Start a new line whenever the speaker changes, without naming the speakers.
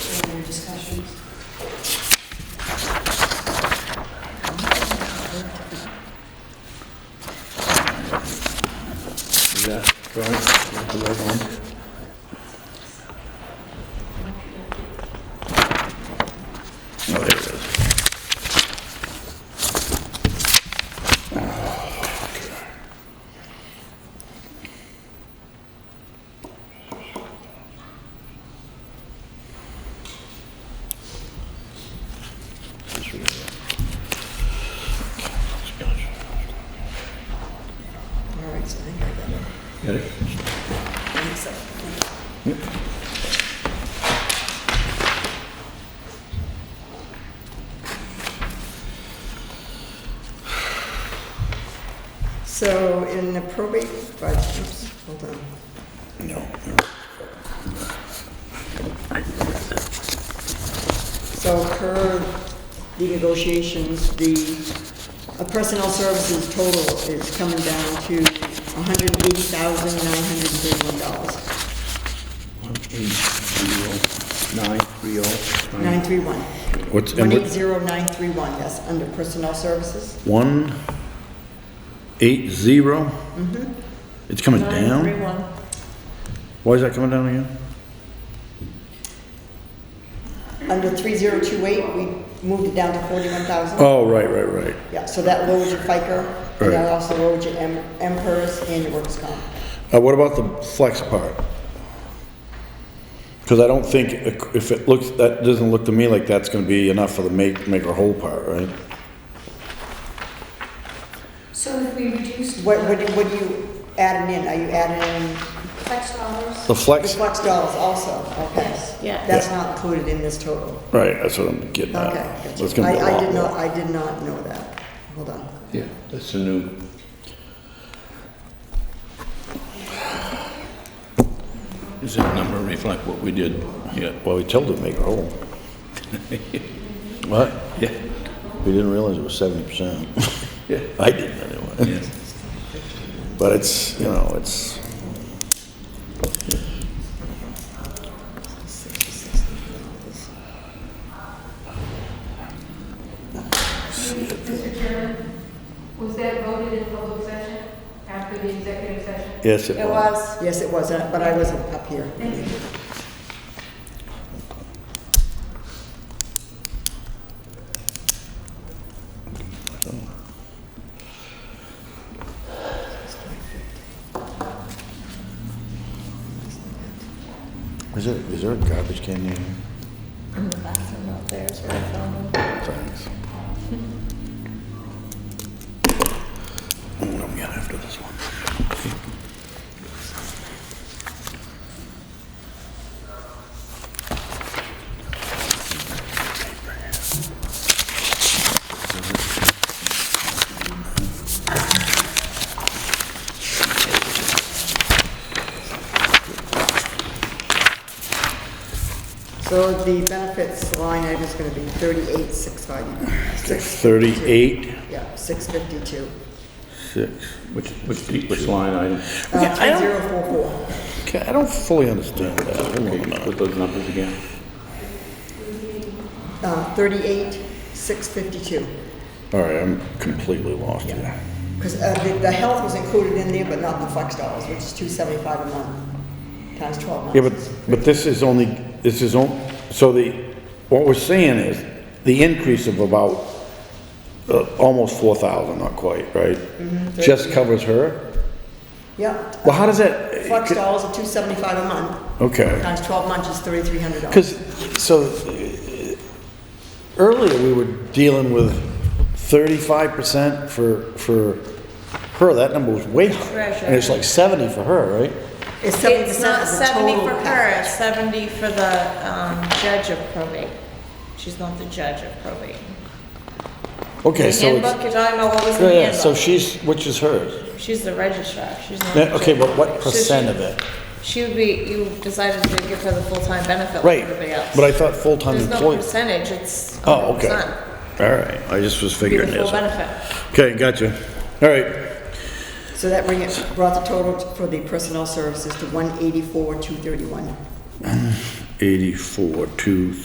So in the probate budget, oops, hold on.
No.
So per the negotiations, the uh, personnel services total is coming down to $180,931,
Eight, zero, nine, three, oh, nine.
931.
What's, and what,
180931, that's under personnel services.
one, eight, zero?
Mm-hmm.
It's coming down?
931.
Why is that coming down again?
Under 3028, we moved it down to 41,000.
Oh, right, right, right.
Yeah, so that lowers your FICA, and that
Right.
also lowers your M- MPERS and your workers' comp.
Uh, what about the flex part? Cause I don't think, it- if it looks, that doesn't look to me like that's gonna be enough for the make, make or whole part, right?
So if we reduced
What, what do- what do you adding in? Are you adding in
tax dollars,
The
the
flex,
flex dollars also? Okay.
Yeah.
That's not included in this total.
right, that's what I'm getting at.
Okay.
That's gonna be a
I, I
lot
did
more.
not, I did not know that. Hold on.
Yeah, that's a new. Does that number reflect what we did? Yeah.
Well, we told them to make a whole. What?
Yeah.
We didn't realize it was seventy percent.
Yeah.
I didn't anyway.
Yeah.
But it's, you know, it's,
Mr. Chairman, was that voted in public session after the executive session?
yes, it was.
Yes, it was, uh, but I wasn't up here.
Is there, is there a garbage can near here? Thanks. I don't know what I'm getting after this one.
So the benefits line item is gonna be thirty-eight, six five.
Thirty-eight,
Yeah, six fifty-two.
six.
Which, which, which line
Uh,
I
item?
three
don't-
zero four four.
Okay, I don't fully understand that. Hold on a minute.
Put those numbers again.
Uh, thirty-eight, six fifty-two.
All right, I'm completely lost here.
Because uh, the, the health was included in there, but not the flex dollars, which is two seventy-five a month, times twelve months.
Yeah, but, but this is only, this is on, so the, what we're seeing is the increase of about, uh, almost four thousand, not quite, right? Just covers her?
Yep.
Well, how does that?
Flex dollars are two seventy-five a month,
Okay.
times twelve months is thirty-three hundred dollars.
Because, so, uh, earlier we were dealing with thirty-five percent for, for her, that number was way higher.
Treasure.
And it's like seventy for her, right?
It's seventy
It's
percent
not
of the
seventy
total
for her,
package.
it's seventy for the, um, judge of probate. She's not the judge of probate.
Okay,
The
so it's,
handbook, you're talking about what was in
yeah,
the
yeah, so
handbook?
she's, which is hers?
She's the registrar, she's not. the
Yeah, Okay,
judge
but
of
what
probate. So she-
percent of it?
She would be, you decided to give her the full-time benefit like
Right,
everybody else.
but I thought full-time
There's no
employees.
percentage, it's.
Oh, okay.
100%.
All right, I just was
Be the
figuring
full
this. out.
benefit.
Okay, gotcha. All right,
So that bring it, brought the total for the personnel services to one eighty-four, two thirty-one.
eighty-four, two,